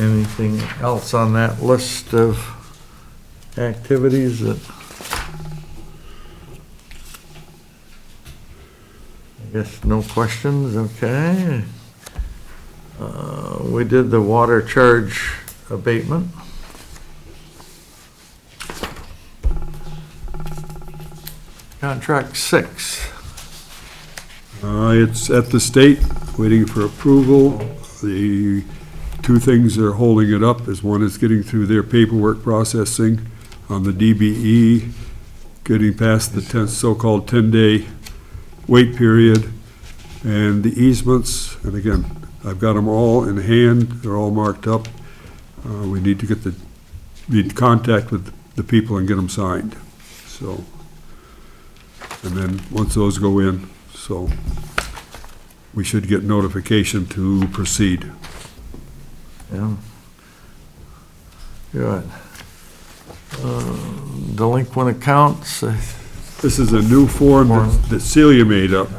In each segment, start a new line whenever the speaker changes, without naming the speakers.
Anything else on that list of activities that? I guess no questions, okay. Uh, We did the water charge abatement. Contract six.
Uh, It's at the state, waiting for approval. The two things that are holding it up is one is getting through their paperwork processing on the DBE, getting past the 10 so-called 10-day wait period, and the easements, and again, I've got them all in hand, they're all marked up. Uh, We need to get the, need to contact with the people and get them signed, so. And then, once those go in, so we should get notification to proceed.
Yeah. Good. Uh, Delinquent accounts, uh,
This is a new form that- that Celia made up,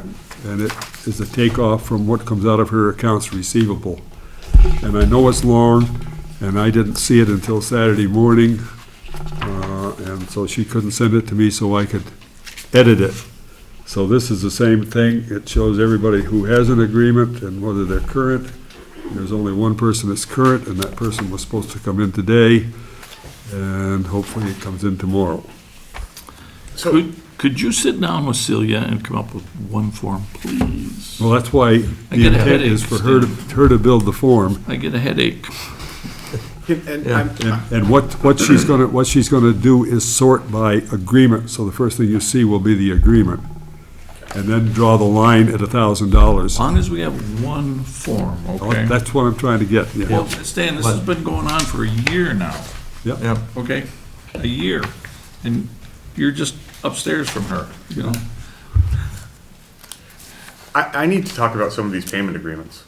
and it is a takeoff from what comes out of her accounts receivable. And I know it's long, and I didn't see it until Saturday morning, uh, and so she couldn't send it to me so I could edit it. So this is the same thing. It shows everybody who has an agreement and whether they're current. There's only one person that's current, and that person was supposed to come in today, and hopefully it comes in tomorrow.
Could, could you sit down with Celia and come up with one form, please?
Well, that's why
I
the
get a
intent
headache,
is for her to, her to build the form.
I get a headache.
And
Yeah.
I'm,
And and what, what she's gonna, what she's gonna do is sort by agreement, so the first thing you see will be the agreement. And then draw the line at a thousand dollars.
As long as we have one form, okay?
That's what I'm trying to get, yeah.
Well, Stan, this has been going on for a year now,
Yep.
yep,
okay? A year. And you're just upstairs from her, you know?
I, I need to talk about some of these payment agreements.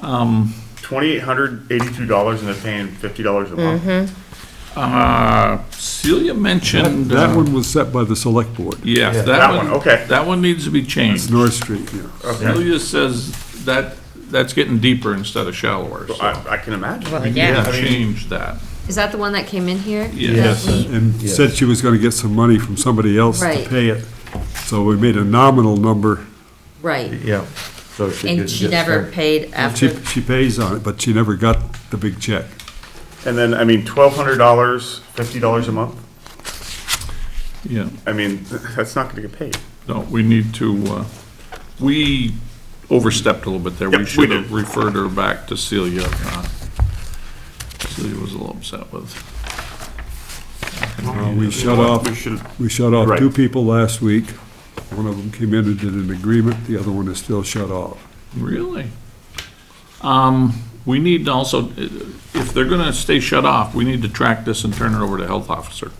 Um. Twenty-eight hundred eighty-two dollars and they're paying fifty dollars a month.
Uh, Celia mentioned.
That
uh,
one was set by the select board,
Yeah,
That
that one.
one, okay.
That one needs to be changed.
It's North Street,
Uh,
yeah.
Okay,
Celia says that, that's getting deeper instead of shallower, so.
I, I can imagine.
Well, yeah.
Change that.
Is that the one that came in here?
Yes.
That we-
And said she was gonna get some money from somebody else to
Right.
pay it. So we made a nominal number.
Right,
yep. So she
and
didn't
she
get
never
her-
paid
She,
after,
she pays on it, but she never got the big check.
And then, I mean, twelve hundred dollars, fifty dollars a month,
Yeah.
I mean, that's not gonna get paid.
No, we need to, uh, we overstepped a little bit there.
Yep,
We
we
should have
did.
referred her back to Celia. uh, Celia was a little upset with.
Uh, We shut off,
We should,
We shut off
Right.
two people last week. One of them came in and did an agreement, the other one is still shut off.
Really? Um, we need to also, if they're gonna stay shut off, we need to track this and turn it over to health officer.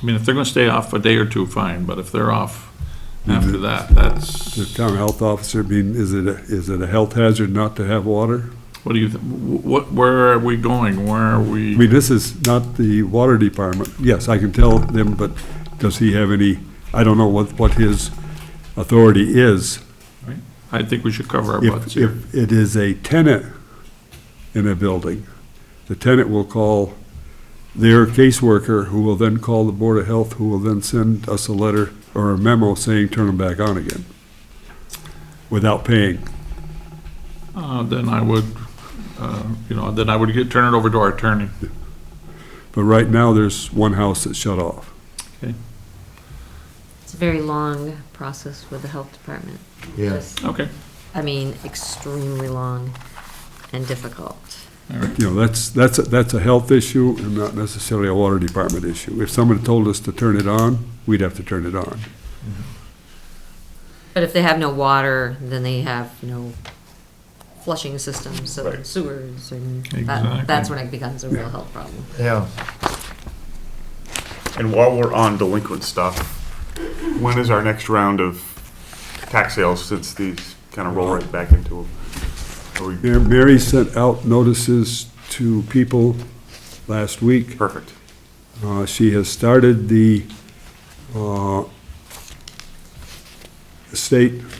I mean, if they're gonna stay off a day or two, fine, but if they're off after that,
The
that's,
town health officer, I mean, is it, a- is it a health hazard not to have water?
what do you, th- wh- what, where are we going? Where are
I
we?
mean, this is not the water department. Yes, I can tell them, but does he have any, I don't know what, what his authority is.
I think we should cover our butts
If,
here.
if it is a tenant in a building, the tenant will call their caseworker, who will then call the Board of Health, who will then send us a letter or a memo saying, turn them back on again, without paying.
Uh, then I would, uh, you know, then I would get, turn it over to our attorney.
But right now, there's one house that's shut off.
it's a very long process with the health department.
Yeah,
Just-
Okay,
I mean, extremely long and difficult.
all right.
You know, that's, that's, a- that's a health issue and not necessarily a water department issue. If someone told us to turn it on, we'd have to turn it on.
But if they have no water, then they have no flushing systems, so
Right.
sewers, and
Exactly.
that, that's when it becomes a real health problem.
yeah.
and while we're on delinquent stuff, when is our next round of tax sales since these kinda roll right back into them? Are we,
Yeah, Mary sent out notices to people last week.
perfect.
Uh, She has started the uh, estate